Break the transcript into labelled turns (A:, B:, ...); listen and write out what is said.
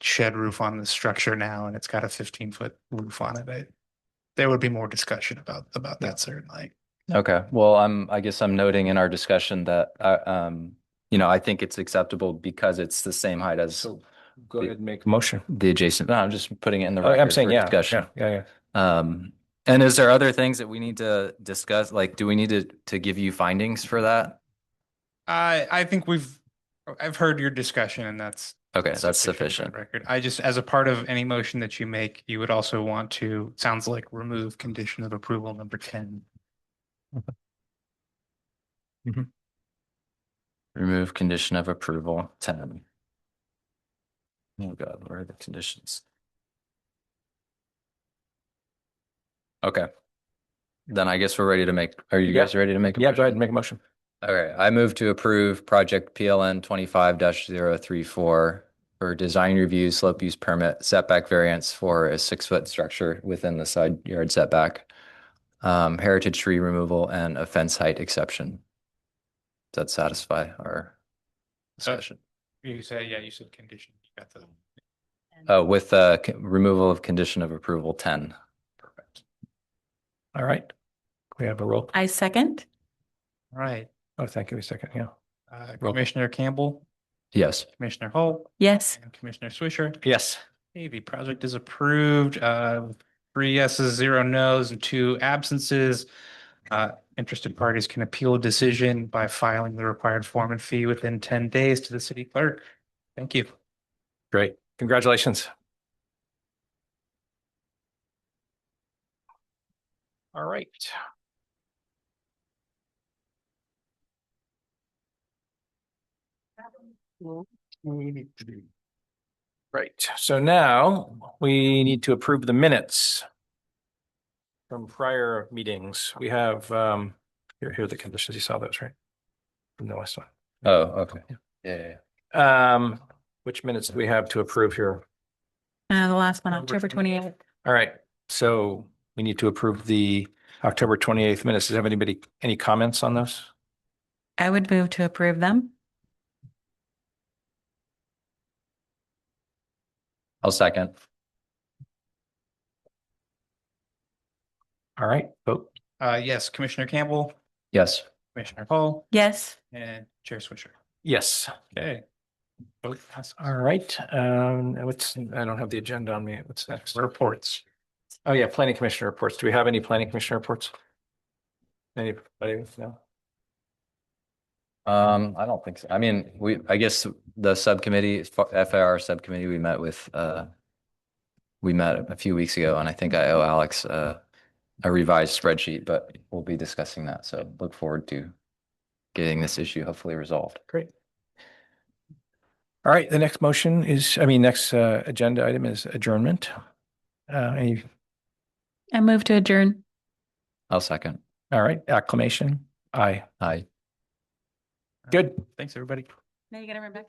A: shed roof on the structure now and it's got a fifteen foot roof on it, I. There would be more discussion about, about that certainly.
B: Okay, well, I'm, I guess I'm noting in our discussion that, uh, um, you know, I think it's acceptable because it's the same height as
C: So go ahead and make a motion.
B: the adjacent, no, I'm just putting it in the
C: Oh, I'm
B: record
C: saying,
B: for
C: yeah, yeah,
B: discussion.
C: yeah, yeah.
B: Um, and is there other things that we need to discuss? Like, do we need to, to give you findings for that?
A: I, I think we've, I've heard your discussion and that's.
B: Okay, that's
A: for the
B: sufficient.
A: Record. I just, as a part of any motion that you make, you would also want to, sounds like remove condition of approval number ten.
B: Remove condition of approval, ten. Oh God, where are the conditions? Okay. Then I guess we're ready to make, are you
C: Yeah.
B: guys ready to make? a
C: Yeah,
B: motion?
C: go ahead and make a motion.
B: All right, I move to approve project PLN twenty-five 34 for design review, slope use permit, setback variance for a six-foot structure within the side yard setback, um, heritage tree removal and a fence height exception. Does that satisfy our discussion?
A: You say, yeah, you said condition. You got the.
B: Oh, with, uh, c- removal of condition of approval ten. Perfect.
C: All right. We have a roll.
D: I second.
A: All right,
C: Oh, thank you a second. Yeah.
A: uh,
C: Roll.
A: Commissioner Campbell,
B: Yes.
A: Commissioner Hall,
D: Yes.
A: and Commissioner Swisher.
C: Yes.
A: Okay, the project is approved, uh, three yeses, zero nos, and two absences. Uh, interested parties can appeal a decision by filing the required form and fee within ten days to the city clerk. Thank you.
C: Great. Congratulations. All right. Right. So now we need to approve the minutes from prior meetings. We have, um, here, here are the conditions. You saw those, right? From the last one.
B: Oh, okay. Yeah.
C: Um, which minutes do we have to approve here?
D: Uh, the last one,
A: Number
D: October
A: 28.
D: twenty-eighth.
C: All right, so we need to approve the October twenty-eighth minutes. Does have anybody, any comments on those?
D: I would move to approve them.
B: I'll second.
C: All right, vote.
A: Uh, yes, Commissioner Campbell,
B: Yes.
A: Commissioner Hall,
D: Yes.
A: and Chair Swisher.
C: Yes.
A: Okay. Vote passes.
C: All right, um, and what's, I don't have the agenda on me. What's next?
A: Reports.
C: Oh, yeah, planning commissioner reports. Do we have any planning commissioner reports? Anybody? No?
B: Um, I don't think so. I mean, we, I guess the subcommittee, FAR subcommittee, we met with, uh, we met a few weeks ago and I think I owe Alex, uh, a revised spreadsheet, but we'll be discussing that. So look forward to getting this issue hopefully resolved.
C: Great. All right, the next motion is, I mean, next, uh, agenda item is adjournment. Uh, any,
D: I move to adjourn.
B: I'll second.
C: all right, acclamation. Aye,
B: Aye.
C: good.
A: Uh, Thanks, everybody.
D: Now you get it, Rebecca.